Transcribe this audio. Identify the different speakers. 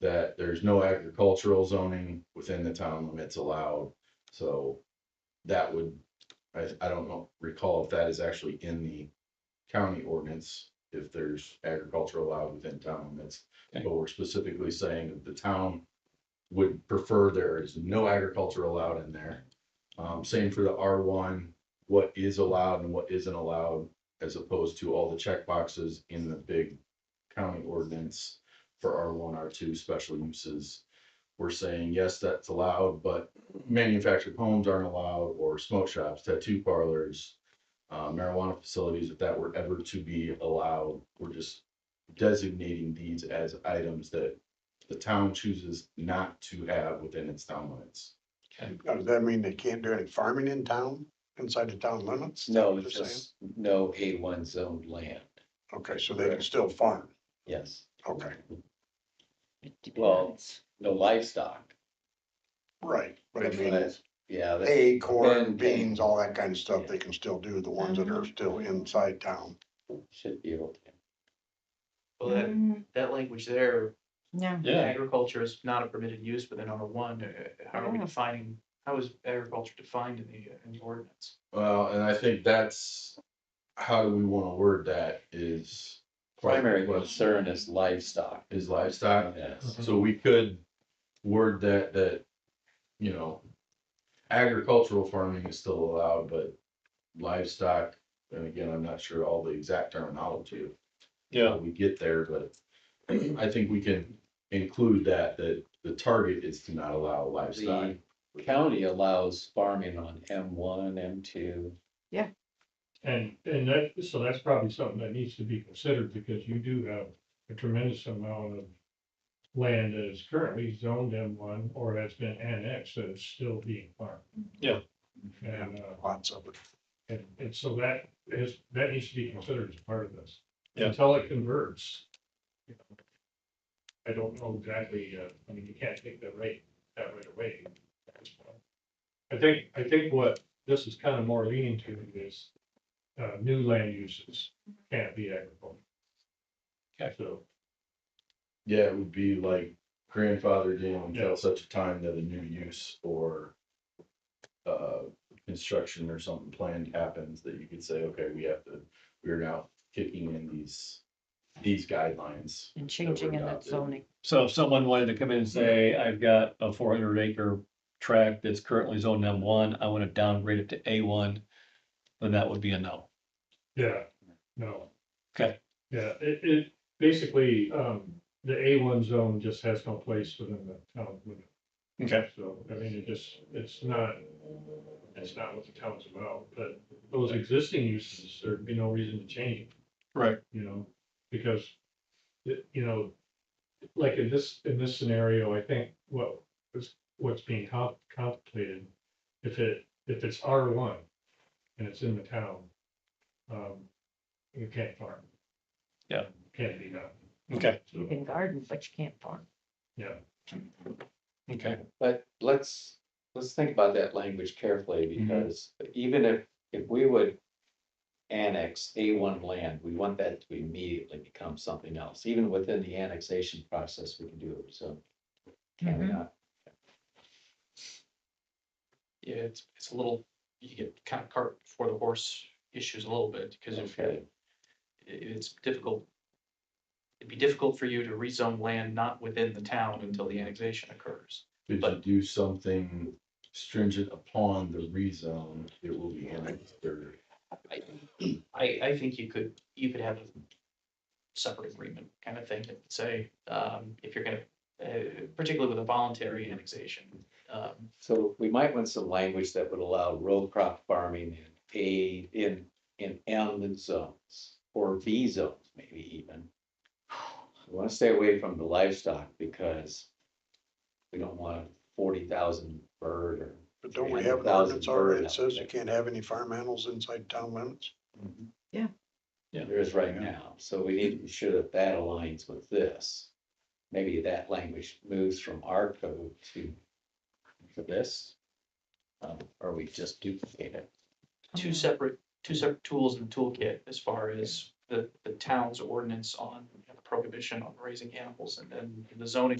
Speaker 1: that there's no agricultural zoning within the town limits allowed. So that would, I, I don't know, recall if that is actually in the county ordinance, if there's agriculture allowed within town limits.
Speaker 2: Okay.
Speaker 1: But we're specifically saying that the town would prefer there is no agriculture allowed in there. Um, same for the R one, what is allowed and what isn't allowed, as opposed to all the check boxes in the big county ordinance for R one, R two, special uses. We're saying, yes, that's allowed, but manufactured homes aren't allowed, or smoke shops, tattoo parlors, uh, marijuana facilities, if that were ever to be allowed, we're just designating these as items that the town chooses not to have within its town limits.
Speaker 3: Now, does that mean they can't do any farming in town, inside the town limits?
Speaker 2: No, it's
Speaker 3: Just saying.
Speaker 2: just no A one zoned land,
Speaker 3: Okay, so they can still farm,
Speaker 2: yes,
Speaker 3: okay,
Speaker 2: well, no livestock.
Speaker 3: right, but I mean,
Speaker 2: That's- Yeah, that's,
Speaker 3: hay, corn,
Speaker 2: Then- Mm-hmm.
Speaker 3: beans, all that kind of stuff, they can still do, the ones that are still inside town.
Speaker 2: should be able to.
Speaker 4: Well, that,
Speaker 5: Mm,
Speaker 4: that language there,
Speaker 5: Yeah,
Speaker 4: agriculture is not a permitted use within R one, uh, how are we
Speaker 5: Yeah.
Speaker 4: defining, how is agriculture defined in the, uh, in the ordinance?
Speaker 1: Well, and I think that's, how do we wanna word that is.
Speaker 2: Primary
Speaker 1: what
Speaker 2: concern is livestock,
Speaker 1: Is livestock,
Speaker 2: yes,
Speaker 1: So we could word that, that, you know, agricultural farming is still allowed, but livestock, and again, I'm not sure all the exact terminology. Yeah. We get there, but I think we can include that, that the target is to not allow livestock.
Speaker 2: the county allows farming on M one, M two.
Speaker 6: And, and that, so that's probably something that needs to be considered because you do have a tremendous amount of land that is currently zoned M one or has been annexed that is still being farmed.
Speaker 2: Yeah.
Speaker 6: And, uh,
Speaker 3: Lots of it.
Speaker 6: and, and so that is, that needs to be considered as part of this.
Speaker 2: Yeah.
Speaker 6: Until it converts. you know, I don't know exactly, uh, I mean, you can't take that rate, that right away. I think, I think what this is kind of more leaning to is uh, new land uses can't be agricultural. Okay, so,
Speaker 1: Yeah, it would be like grandfathered in
Speaker 6: Yeah.
Speaker 1: until such a time that a new use or uh, construction or something planned happens that you could say, okay, we have to, we're now kicking in these, these guidelines.
Speaker 5: and changing in that zoning.
Speaker 7: So if someone wanted to come in and say, I've got a four hundred acre tract that's currently zoned M one, I want to downgrade it to A one, then that would be a no.
Speaker 6: yeah, no.
Speaker 7: Okay.
Speaker 6: Yeah, it, it, basically, um, the A one zone just has no place within the town limit.
Speaker 7: Okay.
Speaker 6: So, I mean, it just, it's not, it's not what the town's about, but those existing uses, there'd be no reason to change them.
Speaker 7: Right.
Speaker 6: you know, because, it- you know, like in this, in this scenario, I think what is, what's being co- contemplated, if it, if it's R one and it's in the town, um, you can't farm.
Speaker 7: Yeah.
Speaker 6: Can't be done.
Speaker 7: Okay,
Speaker 5: You can garden, but you can't farm.
Speaker 6: Yeah,
Speaker 7: okay.
Speaker 2: But let's, let's think about that language carefully, because even if, if we would annex A one land, we want that to immediately become something else. Even within the annexation process, we can do it, so can we
Speaker 5: Mhm.
Speaker 2: not?
Speaker 4: Yeah, it's, it's a little, you get kind of cart before the horse issues a little bit, because if, i-
Speaker 2: Okay,
Speaker 4: it's difficult. It'd be difficult for you to rezone land not within the town until the annexation occurs.
Speaker 1: If you
Speaker 4: But-
Speaker 1: do something stringent upon the rezone, it will be annexed or
Speaker 4: I, I think you could, you could have a separate agreement kind of thing, that would say, um, if you're gonna, uh, particularly with a voluntary annexation. Um,
Speaker 2: so we might want some language that would allow row crop farming in A, in, in M zones, or V zones, maybe even. We want to stay away from the livestock, because we don't want forty thousand bird or
Speaker 3: But don't we have an ordinance
Speaker 2: 300,000
Speaker 3: already
Speaker 2: bird
Speaker 3: that
Speaker 2: out
Speaker 3: says
Speaker 2: there.
Speaker 3: you can't have any farm animals inside town limits?
Speaker 7: Yeah.
Speaker 2: there is right now, so we need to be sure that that aligns with this. Maybe that language moves from our code to, to this. Um, or we just duplicate it.
Speaker 4: two
Speaker 5: Mm.
Speaker 4: separate, two separate tools in the toolkit as far as the, the town's ordinance on prohibition on raising animals and then the zoning